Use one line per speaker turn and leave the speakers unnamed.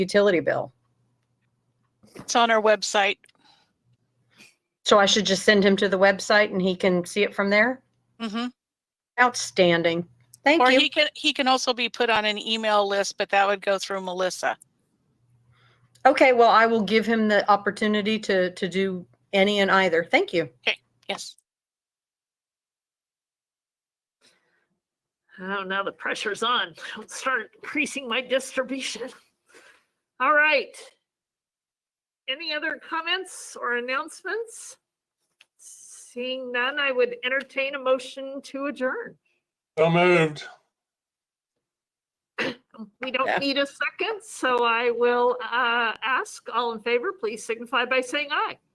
utility bill.
It's on our website.
So I should just send him to the website and he can see it from there?
hmm
Outstanding. Thank
Or
you.
he can, he can also be put on an email list, but that would go through Melissa.
Okay, well, I will give him the opportunity to, to do any and either. Thank you.
Yes.
Oh, now the pressure's on. I'll start increasing my distribution. All right. Any other comments or announcements? Seeing none, I would entertain a motion to adjourn.
So moved.
We don't
Yeah.
need a second, so I will uh, ask all in favor, please signify by saying aye.